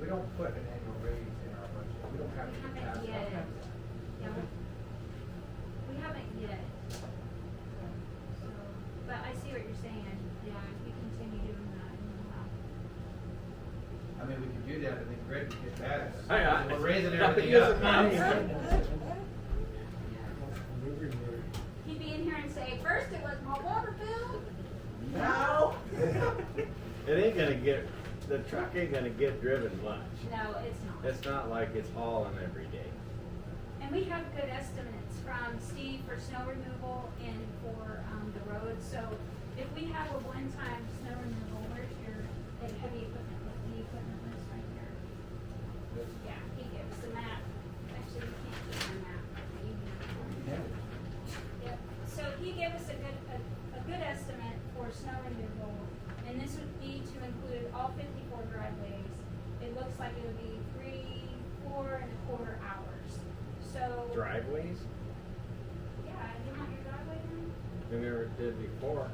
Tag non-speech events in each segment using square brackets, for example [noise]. don't put an annual raise in our budget, we don't have to pass Haven't that. yet. Yeah, we haven't yet. So, but I see what you're saying, yeah, if we continue doing that, I and we'll have, mean, we could do that, but then Greg would get mad at us. Hey, I- We're raising that everything is a up. he'd be in here and say, first it was my water bill, Now? It ain't gonna get, the truck ain't gonna get driven much. no, it's not. It's not like it's hauling every day. And we have good estimates from Steve for snow removal and for, um, the roads, so if we have a one-time snow removal, where's your, the heavy equipment, like the equipment list right here? Yeah, he gives the map, actually, you can't get the map, but you can. Yep, so he gave us a good, a, a good estimate for snow removal, and this would be to include all fifty-four driveways. It looks like it would be three, four and a quarter hours, so. Driveways, Yeah, you want your driveway done? we never did before.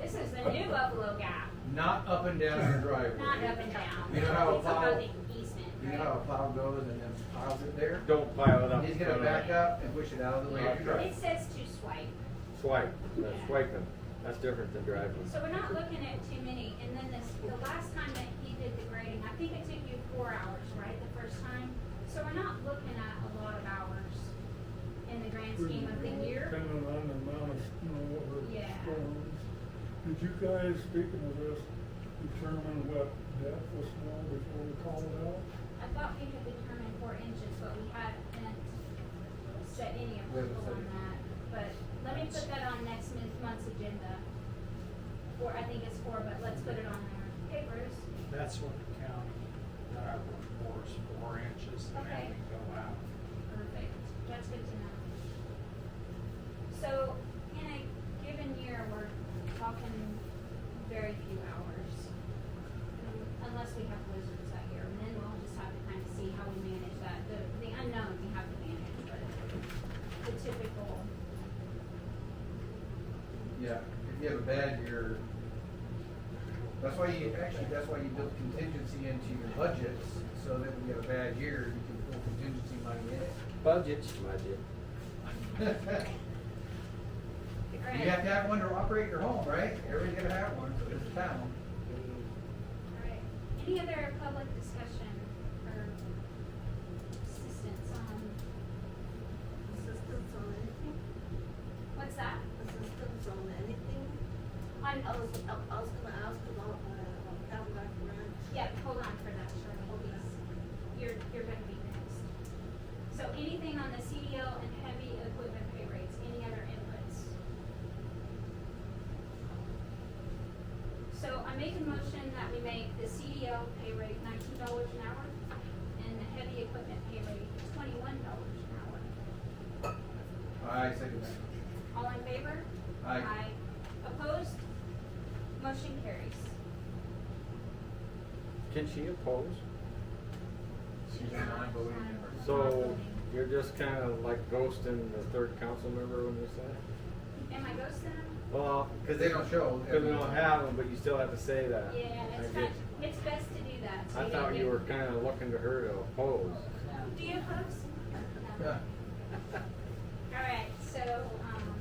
This is the new Buffalo guy, Not up and down the not up driveway. and down. You know how a It's about plow- the easement, You know how a plow goes and then piles it there? Don't pile it up. He's in gonna front of back me. up and push it out of the way. of the right? It truck. says to swipe. Swipe, that's swiping, that's different than driving. So we're not looking at too many, and then this, the last time that he did the grading, I think it took you four hours, right, the first time? So we're not looking at a lot of hours in the grand scheme of the year. Kind of on the amount of snow or Yeah. storms. Did you guys, speaking of this, determine what depth was snow before we called it out? I thought we had determined four inches, but we hadn't set any We haven't set approval on it. that. But let me put that on next month- month's agenda, or I think it's four, but let's put it on there. Okay, Bruce? That's what the county that I work for is four inches and then we go out. Perfect, that's good to know. So, in a given year, we're talking very few hours. Um, Unless we have blizzards that year, and then we'll just have to kind of see how we manage that, the, the unknown we have to manage, but the typical, Yeah, if you have a bad year, that's why you, actually, that's why you build contingency into your budgets, so that when you have a bad year, you can pull contingency money in Budget, budget. it. [laughs] You have alright, to have one to operate your home, right? Everybody's gonna have one, so there's a town. alright. Any other public discussion or assistance on, Assistance on anything? what's that? Assistance on anything? On, I was, I was gonna ask about, uh, on Cadillac Ranch. Yeah, hold on for that, Shirley, please. You're, you're gonna be next. So anything on the CDL and heavy equipment pay rates, any other inputs? So I make a motion that we make the CDL pay rate nineteen dollars an hour and the heavy equipment pay rate twenty-one dollars an hour. I second that. All in favor? Aye. Opposed? Motion carries. Can she oppose? She's a non-voting member. So you're just kinda like ghosting the third council member when you say that? Am I ghosting them? Well, Cause they don't show. Cause we don't have them, but you still have to say that. Yeah, I it's get not, you. it's best to do that. so I don't thought you get- were kinda looking to her to oppose. Do you oppose? No. Yeah. All right, so, um,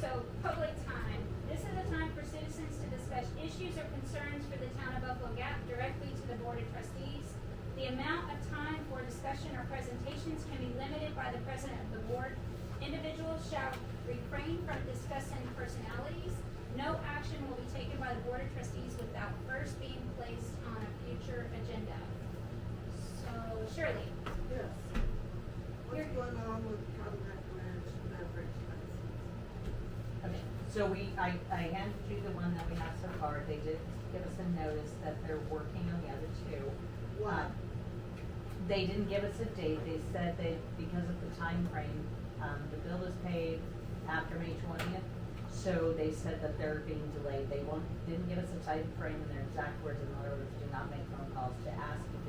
so public time. This is a time for citizens to discuss issues or concerns for the town of Buffalo Gap directly to the Board of Trustees. The amount of time for discussion or presentations can be limited by the president of the board. Individuals shall refrain from discussing personalities. No action will be taken by the Board of Trustees without first being placed on a future agenda. So Shirley, Yes. What's going on with Cadillac Ranch beverage license? Okay, so we, I, I handed you the one that we have so far, they did give us a notice that they're working on the other two. Why? Um, They didn't give us a date, they said that because of the time frame, um, the bill is paid after May twentieth, so they said that they're being delayed, they won't, didn't give us a time frame and their exact words, in other words, do not make phone calls to ask if